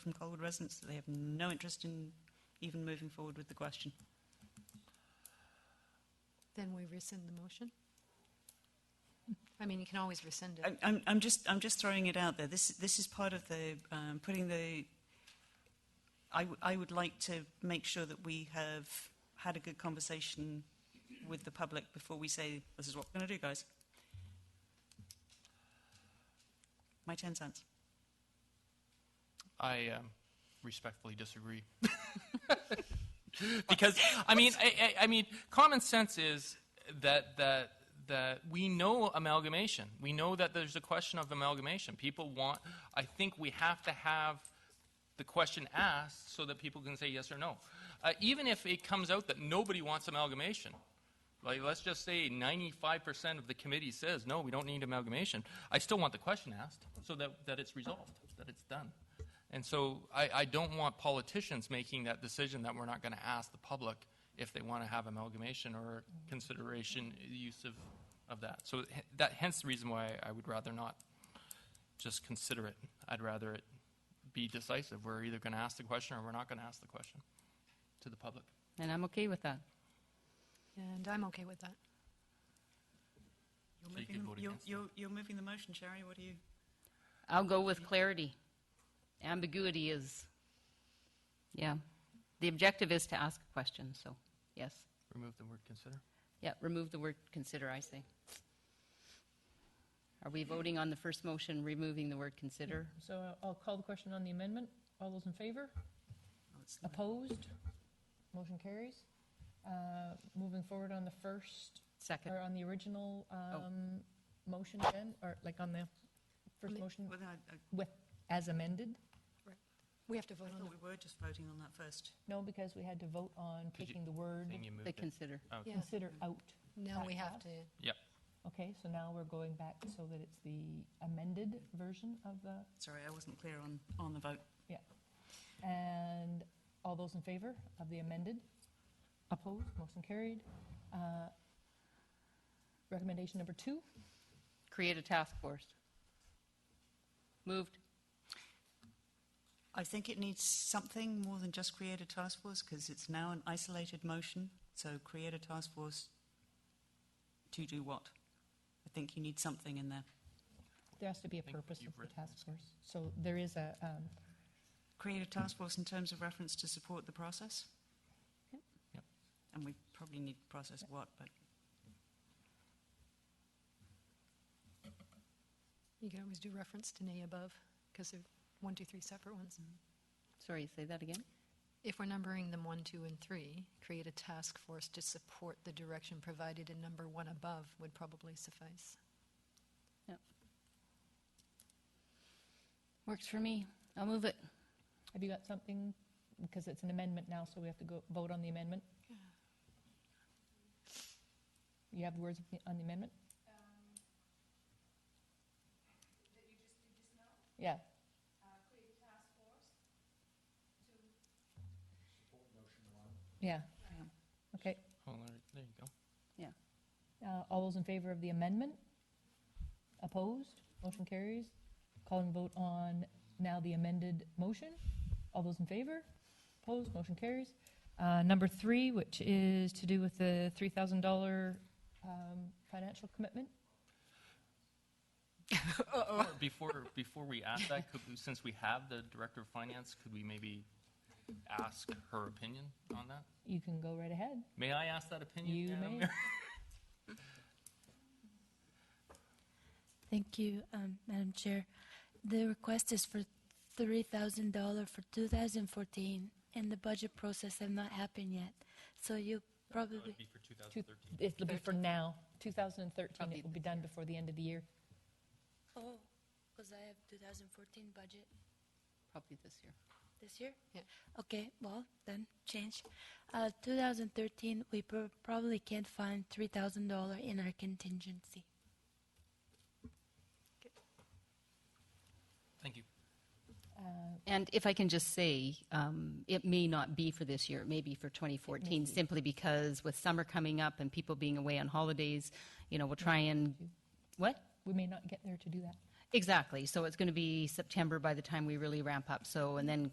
from Colwood residents that they have no interest in even moving forward with the question. Then we rescind the motion? I mean, you can always rescind it. I'm- I'm, I'm just, I'm just throwing it out there. This, this is part of the, um, putting the, I, w- I would like to make sure that we have had a good conversation with the public before we say, this is what we're going to do, guys. My 10 cents. I um, respectfully disagree. because I mean, I, I, I mean, common sense is that that that we know amalgamation. We know that there's a question of amalgamation. People want. I think we have to have the question asked so that people can say yes or no. Uh, even if it comes out that nobody wants amalgamation, like let's just say 95% of the committee says no, we don't need amalgamation. I still want the question asked so that, that it's resolved, that it's done. And so I, I don't want politicians making that decision that we're not going to ask the public if they want to have amalgamation or consideration use of, of that. So h- that hence the reason why I would rather not just consider it. I'd rather it be decisive. We're either going to ask the question or we're not going to ask the question to the public. And I'm okay with that. And I'm okay with that. You're So you moving could the- vote you're- against it. You're, you're moving the motion, Sherry. What do you? I'll go with clarity. Ambiguity is, yeah. The objective is to ask a question, so, yes. Remove the word consider. Yeah, remove the word consider, I say. Are we voting on the first motion, removing the word consider? So I'll- I'll call the question on the amendment. All those in favor? oh, it's- Opposed? Motion carries. Uh, Moving forward on the first, Second, or on the original um, motion then, or like on the first Ma- motion Well, I, I with, as amended? We have to vote I on thought we were just voting on that first. No, because we had to vote on you- taking the word Then you moved the it. consider. the, yeah, consider out. now we have to, Okay, so now we're going back so that it's the amended version of the, Sorry, I wasn't clear on, on the vote. and all those in favor of the amended? Opposed? Motion carried. Uh, Recommendation number two? Create a task force. Moved. I think it needs something more than just create a task force because it's now an isolated motion. So create a task force to do what? I think you need something in there. There has to be a think purpose you've of the written task force. So there is a, um, Create a task force in terms of reference to support the process. Yep. Yep. And we probably need process what, but you can always do reference to nay above, because they're one, two, three separate ones. Mm-hmm. Sorry, say that again? If we're numbering them one, two, and three, create a task force to support the direction provided in number one above would probably suffice. Works for me. I'll move it. have you got something? Because it's an amendment now, so we have to go vote on the amendment. You have words on the amendment? That you Um, just did just now? Uh, Yeah. Create a task force to. Support motion one. Yeah. Okay. Oh, there- there you go. Uh, All those in favor of the amendment? Opposed? Motion carries. Call and vote on now the amended motion. All those in favor? Opposed? Motion carries. Uh, Number three, which is to do with the $3,000 um, financial commitment. Or Before, before we ask that, could, we- since we have the Director of Finance, could we maybe ask her opinion on that? You can go right ahead. May I ask that opinion? You Madam may. Mayor? Thank you, um, Madam Chair. The request is for $3,000 for 2014, and the budget process have not happened yet. So you That probably, would be for 2013. It'll be for now, 2013. Probably It will be done before the end of the year. oh, because I have 2014 budget Probably this year. this year? Yeah. Okay, well, then change. Uh, 2013, we prob- probably can't find $3,000 in our contingency. Thank you. And if I can just say, um, it may not be for this year, it may be for 2014, simply because with summer coming up and people being away on holidays, you know, we'll try and, what? We may not get there to do that. Exactly. So it's going to be September by the time we really ramp up. So, and then